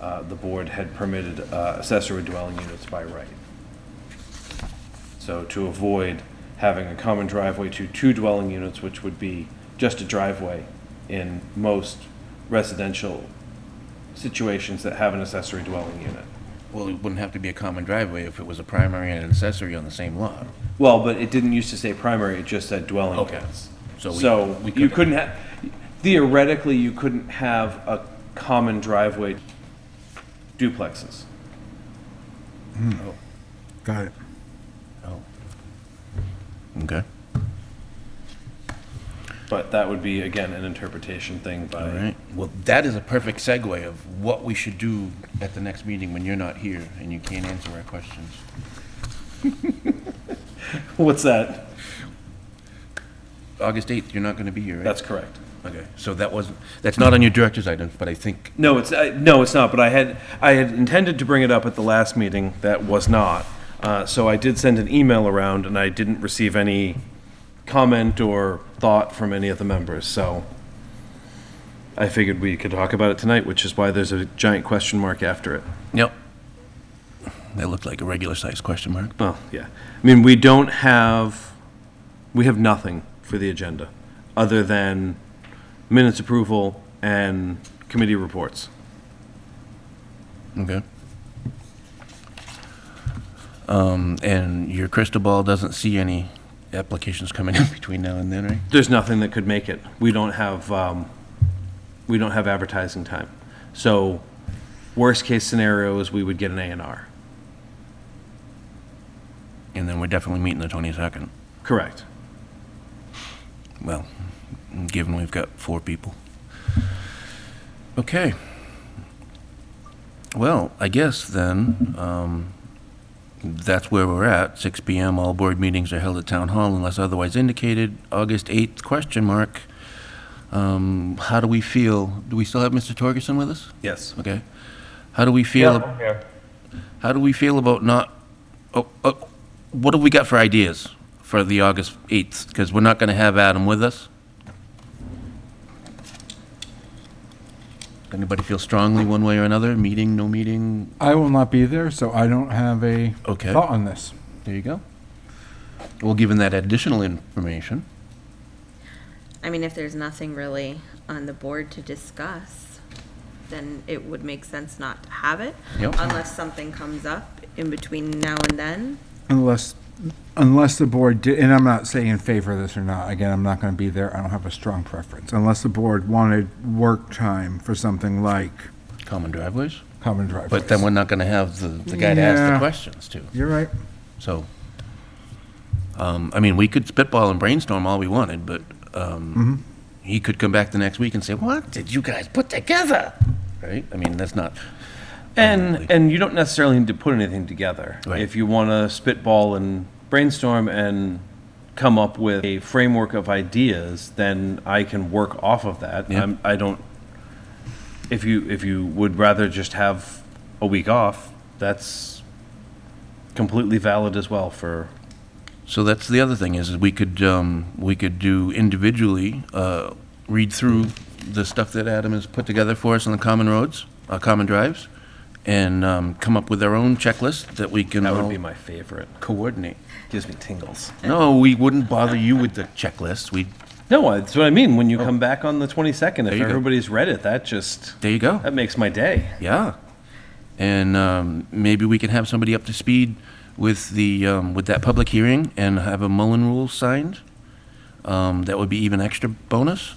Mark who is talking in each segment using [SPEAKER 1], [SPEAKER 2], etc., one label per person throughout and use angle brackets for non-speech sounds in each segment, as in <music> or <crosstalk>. [SPEAKER 1] uh, the board had permitted uh, accessory dwelling units by right. So to avoid having a common driveway to two dwelling units, which would be just a driveway in most residential situations that have an accessory dwelling unit.
[SPEAKER 2] Well, it wouldn't have to be a common driveway if it was a primary and an accessory on the same lot.
[SPEAKER 1] Well, but it didn't used to say primary, it just said dwelling
[SPEAKER 2] Okay.
[SPEAKER 1] units.
[SPEAKER 2] So we-
[SPEAKER 1] So
[SPEAKER 2] we
[SPEAKER 1] you
[SPEAKER 2] couldn't-
[SPEAKER 1] couldn't have, theoretically, you couldn't have a common driveway duplexes.
[SPEAKER 3] Got it.
[SPEAKER 2] Okay.
[SPEAKER 1] But that would be, again, an interpretation thing
[SPEAKER 2] All
[SPEAKER 1] by,
[SPEAKER 2] right. Well, that is a perfect segue of what we should do at the next meeting when you're not here and you can't answer our questions.
[SPEAKER 1] <laughs> what's that?
[SPEAKER 2] August 8th, you're not going to be here, right?
[SPEAKER 1] That's correct.
[SPEAKER 2] Okay, so that wasn't, that's not on your director's items, but I think,
[SPEAKER 1] No, it's, uh, no, it's not, but I had, I had intended to bring it up at the last meeting, that was not. Uh, So I did send an email around, and I didn't receive any comment or thought from any of the members, so I figured we could talk about it tonight, which is why there's a giant question mark after it.
[SPEAKER 2] yep. That looked like a regular-sized question mark.
[SPEAKER 1] Well, yeah. I mean, we don't have, we have nothing for the agenda, other than minutes approval and committee reports.
[SPEAKER 2] Okay. Um, and your crystal ball doesn't see any applications coming in <laughs> between now and then, right?
[SPEAKER 1] there's nothing that could make it. We don't have, um, we don't have advertising time. So worst case scenario is we would get an A and R.
[SPEAKER 2] And then we're definitely meeting the 22nd.
[SPEAKER 1] Correct.
[SPEAKER 2] Well, given we've got four people. Okay. Well, I guess then, um, that's where we're at. 6 PM, all board meetings are held at Town Hall unless otherwise indicated. August 8th, question mark. Um, How do we feel? Do we still have Mr. Torgerson with us?
[SPEAKER 1] Yes.
[SPEAKER 2] Okay. How do we feel? How do we feel about not, oh, oh, what have we got for ideas for the August 8th? Because we're not going to have Adam with us. Anybody feel strongly one way or another? Meeting, no meeting?
[SPEAKER 3] I will not be there, so I don't have a
[SPEAKER 2] Okay.
[SPEAKER 3] thought on this.
[SPEAKER 2] There you go. Well, given that additional information,
[SPEAKER 4] I mean, if there's nothing really on the board to discuss, then it would make sense not to have it.
[SPEAKER 2] Yep.
[SPEAKER 4] Unless something comes up in between now and then. <laughs>
[SPEAKER 3] Unless, unless the board did, and I'm not saying in favor of this or not, again, I'm not going to be there, I don't have a strong preference. Unless the board wanted work time for something like
[SPEAKER 2] common driveways.
[SPEAKER 3] common driveways.
[SPEAKER 2] But then we're not going to have the, the guy to ask the
[SPEAKER 3] Yeah.
[SPEAKER 2] questions to.
[SPEAKER 3] You're right.
[SPEAKER 2] So, um, I mean, we could spitball and brainstorm all we wanted, but, um, he could come back the next week and say, what did you guys put together? Right? I mean, that's not,
[SPEAKER 1] And, and you don't necessarily need to put anything together.
[SPEAKER 2] Right.
[SPEAKER 1] If you want to spitball and brainstorm and come up with a framework of ideas, then I can work off of that.
[SPEAKER 2] Yeah.
[SPEAKER 1] I'm- I don't, if you, if you would rather just have a week off, that's completely valid as well for,
[SPEAKER 2] so that's the other thing is, is we could, um, we could do individually, uh, read through the stuff that Adam has put together for us on the common roads, uh, common drives, and, um, come up with our own checklist that we can
[SPEAKER 1] that would
[SPEAKER 2] all
[SPEAKER 1] be my favorite.
[SPEAKER 2] coordinate.
[SPEAKER 1] Gives me tingles.
[SPEAKER 2] No, we wouldn't bother you with the checklist. We,
[SPEAKER 1] No, that's what I mean. When you come back on the 22nd,
[SPEAKER 2] Oh. There
[SPEAKER 1] if
[SPEAKER 2] you go.
[SPEAKER 1] everybody's read it, that just,
[SPEAKER 2] there you go.
[SPEAKER 1] that makes my day.
[SPEAKER 2] Yeah, and um, maybe we can have somebody up to speed with the um, with that public hearing and have a Mullen rule signed. Um, that would be even extra bonus.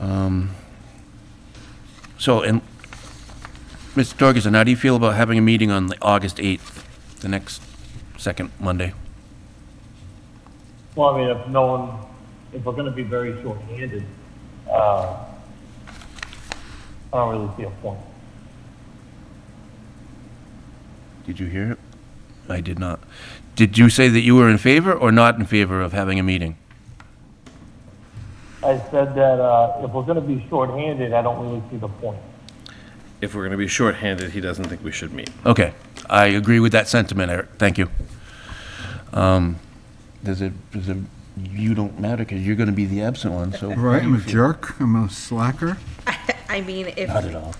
[SPEAKER 2] Um, so, and Mr. Torgerson, how do you feel about having a meeting on the August eighth, the next second Monday?
[SPEAKER 5] Well, I mean, if no one, if we're gonna be very short-handed, uh, I don't really see a point.
[SPEAKER 2] Did you hear it? I did not. Did you say that you were in favor or not in favor of having a meeting?
[SPEAKER 5] I said that, uh, if we're gonna be shorthanded, I don't really see the point.
[SPEAKER 1] If we're going to be shorthanded, he doesn't think we should meet.
[SPEAKER 2] Okay, I agree with that sentiment, Eric, thank you. Um, Does it, does it, you don't matter, because you're going to be the absent one, so.
[SPEAKER 3] Right, I'm a jerk, I'm a slacker.
[SPEAKER 4] I mean, if,
[SPEAKER 2] Not at all.